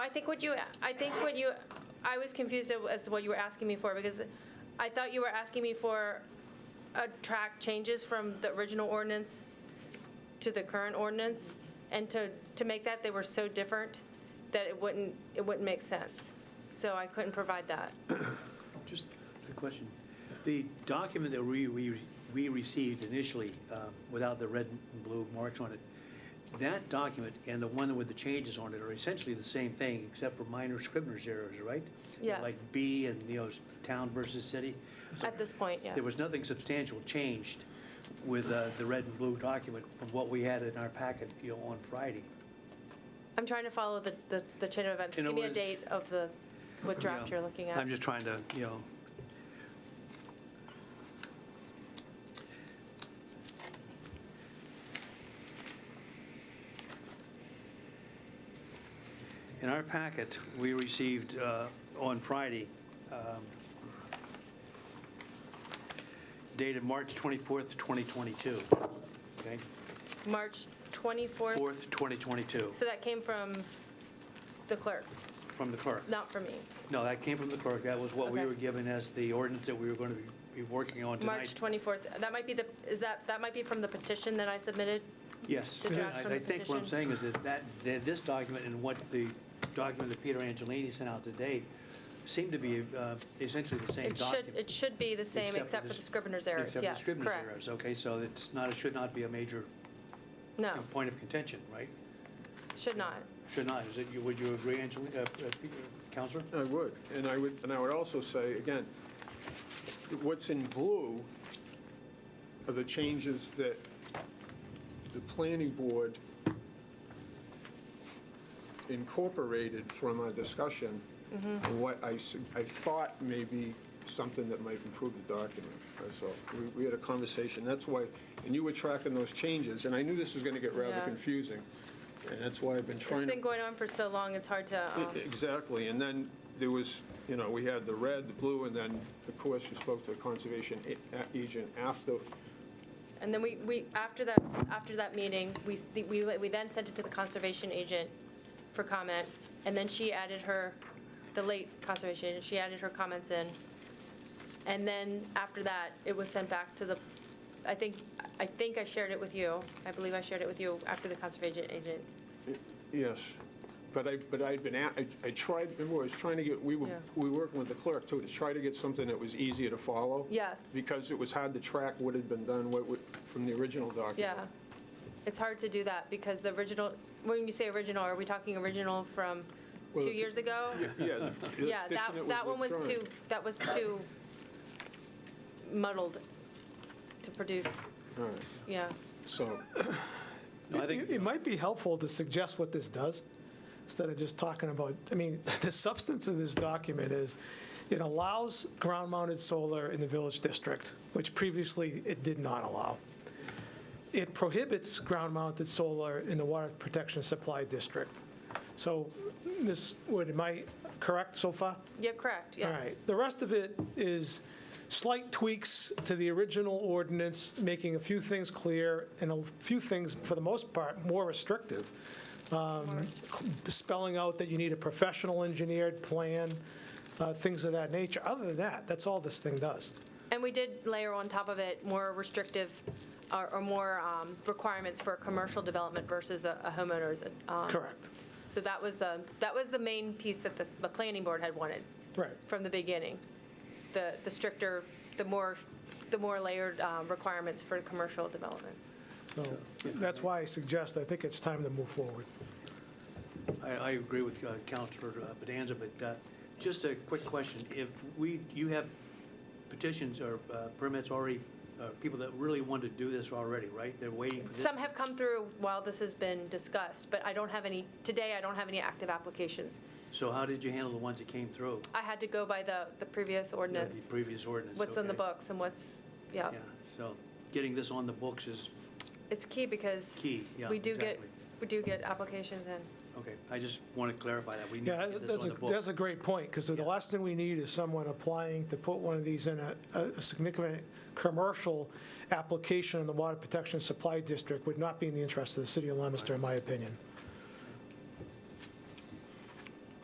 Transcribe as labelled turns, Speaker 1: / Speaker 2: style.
Speaker 1: I think what you, I think what you, I was confused as to what you were asking me for, because I thought you were asking me for a track changes from the original ordinance to the current ordinance, and to, to make that, they were so different that it wouldn't, it wouldn't make sense. So I couldn't provide that.
Speaker 2: Just a question. The document that we, we, we received initially, uh, without the red and blue marks on it, that document and the one with the changes on it are essentially the same thing, except for minor scrivener's errors, right?
Speaker 1: Yes.
Speaker 2: Like B and, you know, town versus city.
Speaker 1: At this point, yeah.
Speaker 2: There was nothing substantial changed with uh, the red and blue document from what we had in our packet, you know, on Friday.
Speaker 1: I'm trying to follow the, the, the chain of events.
Speaker 2: And it
Speaker 1: Give me a
Speaker 2: was-
Speaker 1: date of the, what
Speaker 2: you
Speaker 1: draft
Speaker 2: know.
Speaker 1: you're looking at.
Speaker 2: I'm just trying to, you know, In our packet, we received uh, on Friday, um, dated March 24th, 2022. Okay?
Speaker 1: March 24th,
Speaker 2: 4th, 2022,
Speaker 1: so that came from the clerk,
Speaker 2: from the clerk.
Speaker 1: not from me.
Speaker 2: No, that came from the clerk. That was what we
Speaker 1: Okay.
Speaker 2: were given as the ordinance that we were going to be working on tonight.
Speaker 1: March 24th, that might be the, is that, that might be from the petition that I submitted?
Speaker 2: Yes.
Speaker 1: The draft
Speaker 2: I-
Speaker 1: from the
Speaker 2: I think what I'm
Speaker 1: petition.
Speaker 2: saying is that that, that this document and what the document that Peter Angelini sent out today seem to be uh, essentially the same
Speaker 1: It should,
Speaker 2: document.
Speaker 1: it should be the same, except for the
Speaker 2: s-
Speaker 1: scrivener's errors,
Speaker 2: except for
Speaker 1: yes,
Speaker 2: scrivener's
Speaker 1: correct.
Speaker 2: errors. Okay, so it's not, it should not be a major
Speaker 1: No,
Speaker 2: you know, point of contention, right?
Speaker 1: should not.
Speaker 2: Should not. Is it, you- would you agree, Angelini, uh, uh, Peter- Counselor?
Speaker 3: I would, and I would, and I would also say, again, what's in blue are the changes that the planning board incorporated from our discussion,
Speaker 1: Mm-hmm.
Speaker 3: and what I, s- I thought may be something that might improve the document, that's all. We, we had a conversation, that's why, and you were tracking those changes, and I knew this was gonna get rather
Speaker 1: Yeah.
Speaker 3: confusing, and that's why I've been trying to.
Speaker 1: It's been going on for so long, it's hard to, um,
Speaker 3: E-, Exactly, and then there was, you know, we had the red, the blue, and then, of course, you spoke to the conservation a- agent after,
Speaker 1: and then we, we, after that, after that meeting, we, we, we then sent it to the conservation agent for comment, and then she added her, the late conservation agent, she added her comments in. And then after that, it was sent back to the, I think, I think I shared it with you, I believe I shared it with you after the conservation agent.
Speaker 3: yes. But I, but I'd been, at- I- I tried, remember, I was trying to get, we were,
Speaker 1: Yeah.
Speaker 3: we were working with the clerk, too, to try to get something that was easier to follow.
Speaker 1: Yes.
Speaker 3: Because it was hard to track what had been done, what, would- from the original document.
Speaker 1: Yeah. It's hard to do that because the original, when you say original, are we talking original from
Speaker 3: Well,
Speaker 1: two
Speaker 3: it-
Speaker 1: years ago?
Speaker 3: Yeah. the
Speaker 1: Yeah, that,
Speaker 3: petition
Speaker 1: that one was
Speaker 3: withdrawn.
Speaker 1: too, that was too muddled to produce,
Speaker 3: All right,
Speaker 1: yeah.
Speaker 3: so,
Speaker 2: No, I think-
Speaker 4: It it might be helpful to suggest what this does, instead of just talking about, I mean, the substance of this document is, it allows ground-mounted solar in the village district, which previously it did not allow. It prohibits ground-mounted solar in the water protection supply district. So, Ms. Wood, am I correct so far?
Speaker 1: You're correct,
Speaker 4: All
Speaker 1: yes.
Speaker 4: right, the rest of it is slight tweaks to the original ordinance, making a few things clear and a few things, for the most part, more restrictive. Um, Spelling out that you need a professional engineered plan, uh, things of that nature. Other than that, that's all this thing does.
Speaker 1: And we did layer on top of it more restrictive or or more um, requirements for a commercial development versus a a homeowner's. um,
Speaker 4: Correct.
Speaker 1: So that was, um, that was the main piece that the, the planning board had wanted.
Speaker 4: Right.
Speaker 1: from the beginning. The, the stricter, the more, the more layered um, requirements for commercial development.
Speaker 4: So that's why I suggest, I think it's time to move forward.
Speaker 2: I, I agree with uh, Counselor uh, Bedanza, but uh, just a quick question. If we, you have petitions or uh, permits already, uh, people that really want to do this already, right? They're waiting for this?
Speaker 1: Some have come through while this has been discussed, but I don't have any, today I don't have any active applications.
Speaker 2: So how did you handle the ones that came through?
Speaker 1: I had to go by the, the previous
Speaker 2: you know,
Speaker 1: ordinance,
Speaker 2: The previous ordinance?
Speaker 1: what's on the oh.
Speaker 2: okay?
Speaker 1: books and what's, yeah.
Speaker 2: Yeah, so getting this on the books is
Speaker 1: It's key because
Speaker 2: key, yeah.
Speaker 1: we do get,
Speaker 2: exactly.
Speaker 1: we do get applications in.
Speaker 2: Okay, I just want to clarify that. We need
Speaker 4: Yeah,
Speaker 2: to get this
Speaker 4: that's
Speaker 2: on
Speaker 4: a,
Speaker 2: the
Speaker 4: that's
Speaker 2: books.
Speaker 4: a great point, because the
Speaker 2: Yeah.
Speaker 4: last thing we need is someone applying to put one of these in a, a significant commercial application in the Water Protection Supply District would not be in the interest of the city of Leominster, in my opinion.